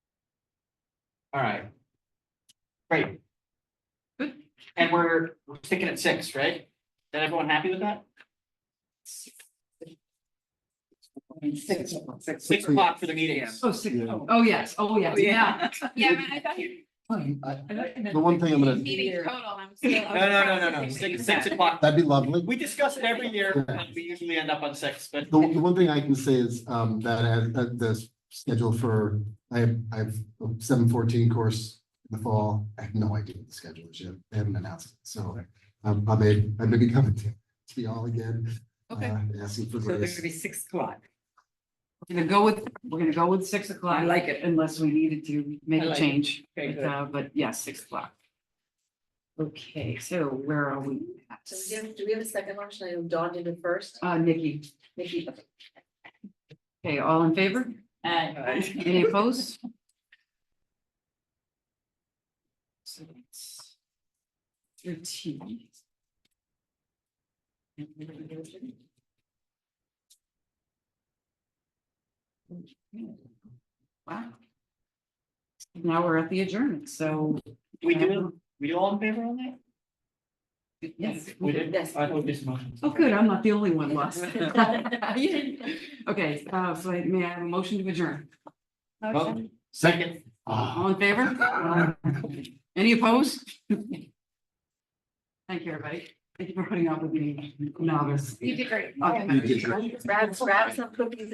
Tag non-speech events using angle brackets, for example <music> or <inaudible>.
All right. Great. Good. And we're we're sticking at six, right? Is that everyone happy with that? Six. Six o'clock for the meetings. Oh, six, Yeah. oh, oh, yes, oh, yes, yeah. Yeah, I thought you. Fine, I- I thought you meant The one thing I'm gonna, Meeting total, <laughs> I'm still. No, no, no, no, no, six, six o'clock. that'd be lovely. We discuss it every year. but We usually end up on six, but The, the one thing I can say is, um, that as, that the schedule for, I have, I have seven fourteen course in the fall. I have no idea what the schedule is yet. They haven't announced it, so um, I may, I may be coming to, to y'all again. Okay. uh, Asking for So they're grace. gonna be six o'clock. We're gonna go with, we're gonna go with six o'clock. I like it. Unless we needed to make I a like it. change. Okay, But, good. uh, But yeah, six o'clock. Okay, so where are we at? So we have, do we have a second motion? I know Dawn did it first. Uh, Nikki, Nikki. okay, all in favor? Aye. <laughs> Any opposed? So that's Thirteen. Wow. Now we're at the adjournment, so. we do, we all in favor on that? Yes. We did? Yes. I thought this motion. Oh, good, I'm not the only one <laughs> lost. Motion. Okay, uh, so may I have a motion to adjourn? Vote. Second. Ah. All in favor? Any opposed? Thank you, everybody. Thank you for putting up with me, novice. You did great. Okay. You did great. Grab, grab some cookies